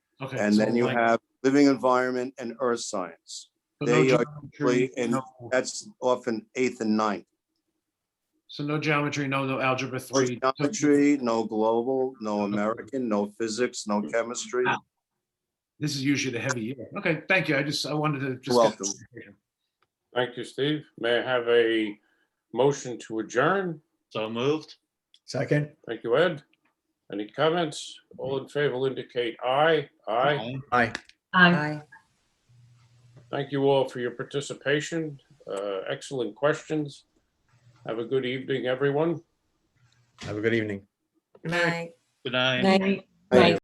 Okay. And so then you like, have living environment and earth science. so no they are geometry, usually in- no- That's often eighth and ninth. So no geometry, no, no algebra No three. so- geometry, no global, no American, no physics, no chemistry. Ah, This is usually the heavy year. Okay, thank you. I just, I wanted to just. get- Thank you, Steve. May I have a motion to adjourn? So moved. Second? Thank you, Ed. Any comments? All in favor will indicate aye. Aye. Aye. Aye. Aye. Thank you all for your participation. Uh, Excellent questions. Have a good evening, everyone. Have a good evening. Aye. Good night. Aye. Thank you.